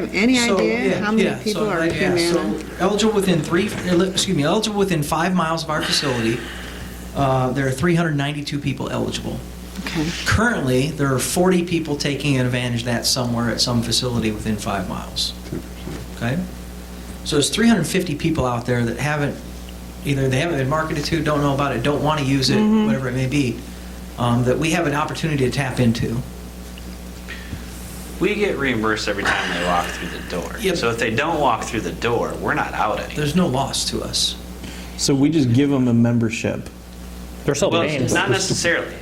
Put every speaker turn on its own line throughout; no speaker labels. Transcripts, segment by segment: Have any
So,
idea
yeah,
how many
yeah, so,
people are in
yeah, so
Humana?
Eligible within three, excuse me, eligible within five miles of our facility, uh, there are 392 people eligible.
Okay,
Currently, there are 40 people taking advantage of that somewhere at some facility within five miles. Okay? So there's 350 people out there that haven't, either they haven't been marketed to, don't know about it, don't want to use it,
Mm-hmm.
whatever it may be, um, that we have an opportunity to tap into.
We get reimbursed every time they walk through the door.
Yep.
So if they don't walk through the door, we're not out any.
There's no loss to us.
So we just give them a membership.
They're still
Well,
paying.
not necessarily.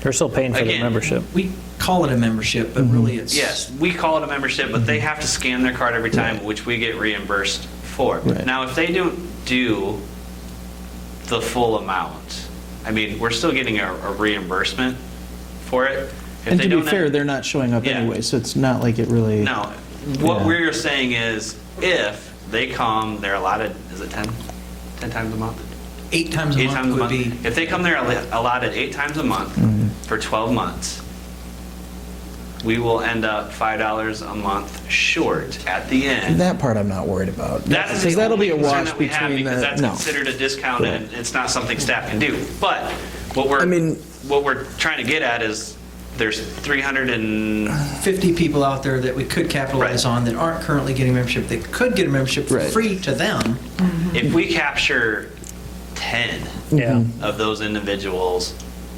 They're still paying for the
Again,
membership.
We call it a membership, but really it's.
Yes, we call it a membership, but they have to scan their card every time, which we get reimbursed for.
Right.
Now, if they don't do the full amount, I mean, we're still getting a a reimbursement for it. If
And
they
to be
don't-
fair, they're not showing up
Yeah.
anyway, so it's not like it really.
No, what
Yeah.
we're saying is if they come, they're allotted, is it 10? 10 times a month?
Eight times a
Eight
month
times a
would
month.
be.
If they come there allo- allotted eight times a month
Mm-hmm.
for 12 months, we will end up $5 a month short at the end.
That part I'm not worried about.
That is
Because
the
that'll
only
be a
concern
wash
that we have
between
because
the,
that's
no.
considered a discount
Right.
and it's not something staff can do. But what we're,
I mean-
what we're trying to get at is there's 300 and,
50 people out there that we could capitalize
Right.
on that aren't currently getting membership, that could get a membership for
Right.
free to them.
if we capture 10,
Yeah.
Mm-hmm.
of those individuals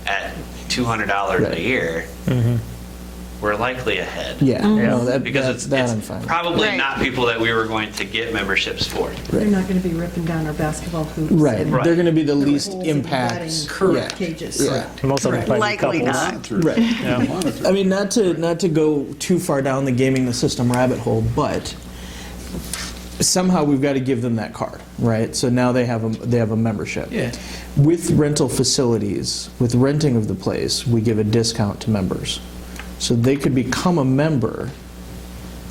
at $200
Right.
a year, we're likely ahead.
Yeah, no, that,
Because
that,
it's,
that I'm
it's
fine. with.
probably
Right.
not people that we were going to get memberships for.
They're not going to be ripping down our basketball hoops.
Right,
and
they're gonna be the least
holes and batting
impact.
Correct.
Cages.
Yeah.
Most of them play
Likely
couples.
not.
Right. I mean, not to, not to go too far down the gaming the system rabbit hole, but somehow we've got to give them that card, right? So now they have a, they have a membership.
Yeah.
With rental facilities, with renting of the place, we give a discount to members. So they could become a member,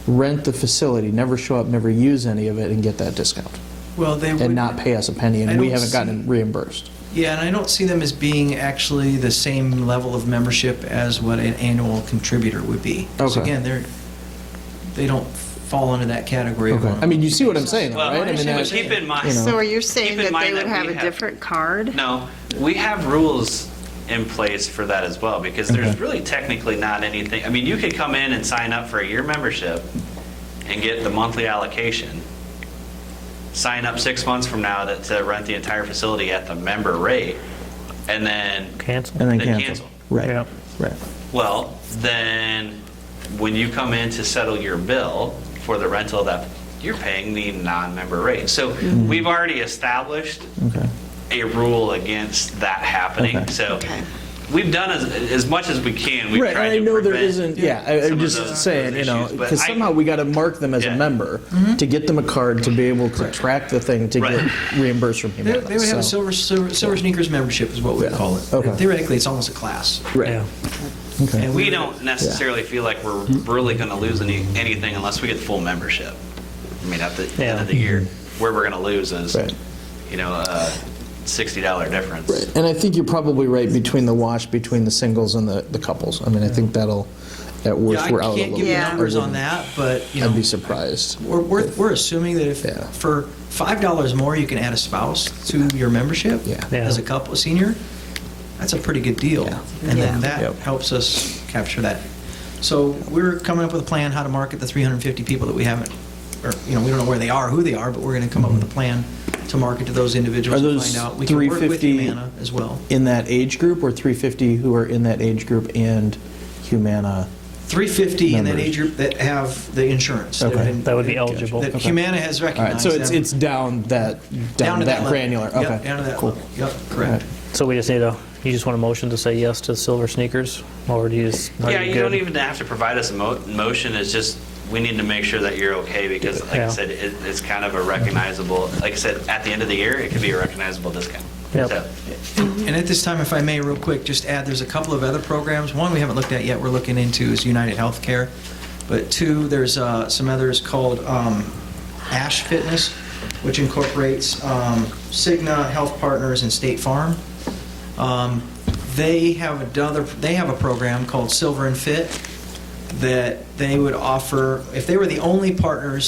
rent the facility, never show up, never use any of it, and get that discount,
Well, they would.
and not pay us a penny,
I
and we
don't
haven't gotten
see-
reimbursed.
Yeah, and I don't see them as being actually the same level of membership as what an annual contributor would be. 'Cause
Okay.
Again, they're, they don't fall into that category. of-
Okay. I mean, you see what I'm saying, though,
Well,
right? I mean,
understand
but
what
that-
you're
keep in mind.
you know.
so are you saying
Keep in
that they
mind
would
that
have
we
a
have-
different card?
No, we have rules in place for that as well, because there's really technically not anything, I mean, you could come in and sign up for a year membership and get the monthly allocation, sign up six months from now to- to rent the entire facility at the member rate, and then
Cancel.
And then
They
cancel.
cancel.
Right,
Yeah.
right.
Well, then, when you come in to settle your bill for the rental of that, you're paying the non-member rate. So we've already established
Okay.
a rule against that happening.
Okay.
So
Okay.
we've done as, as much as we can. We've
Right,
tried
and I
to
know there
prevent
isn't, yeah, I-
some
I'm
of
just
those-
saying, you
those
know,
issues, but
because
I-
somehow we got to mark them as a
Yeah.
member
Mm-hmm.
to get them a card to be able to track the thing to
Right.
get reimbursed from
They
Humana.
they would have a
so-
silver, silver silver sneakers membership is what we
Yeah.
call it.
Okay.
Theoretically, it's almost a class.
Right,
Yeah.
okay.
And
We don't necessarily feel like we're really going to lose any, anything unless we get full membership. I mean, at the end
Yeah.
of the year, where we're going to lose is,
Mm-hmm. Right.
you know, a $60 difference.
Right, and I think you're probably right between the wash, between the singles and the, the couples. I mean, I think that'll, at
Yeah,
worst,
I
we're out
can't
a little
give you
bit.
Yeah.
numbers on that, but, you know.
I'd be surprised.
We're, we're, we're assuming that if
Yeah.
for five dollars more you can add a spouse to your membership
Yeah.
Yeah.
as a couple senior, that's a pretty good deal,
Yeah.
and then
Yeah.
that
Yep.
helps us capture that. So we're coming up with a plan how to market the 350 people that we haven't, or you know we don't know where they are, who they are, but we're going to come up with a plan to market to those individuals
Mm-hmm. Are
and
those
find out. We can work with
350
Humana as well.
In that age group, or 350 who are in that age group and Humana?
350 in that
Members.
age group that have the insurance.
Okay.
in-
That would be eligible.
That
Okay.
Humana has
All right,
recognized.
so it's,
them.
it's down that, down
to
that
level.
granular, okay.
Yep, down to that
cool.
level. Yep,
All
correct.
right.
So we just need a, you just want a motion to say yes to silver sneakers? Or do you just? are
Yeah, you don't
good?
even have to provide us a mo- motion, it's just, we need to make sure that you're okay, because like I
Yeah.
said, it, it's kind of a recognizable, like I said, at the end of the year, it could be a recognizable discount.
Yep.
So,
And at this time, if I may, real quick, just add, there's a couple of other programs. One we haven't looked at yet, we're looking into is United Healthcare. But two, there's uh, some others called um, Ash Fitness, which incorporates um, Cigna, Health Partners, and State Farm. Um, They have another, they have a program called Silver and Fit, that they would offer, if they were the only partners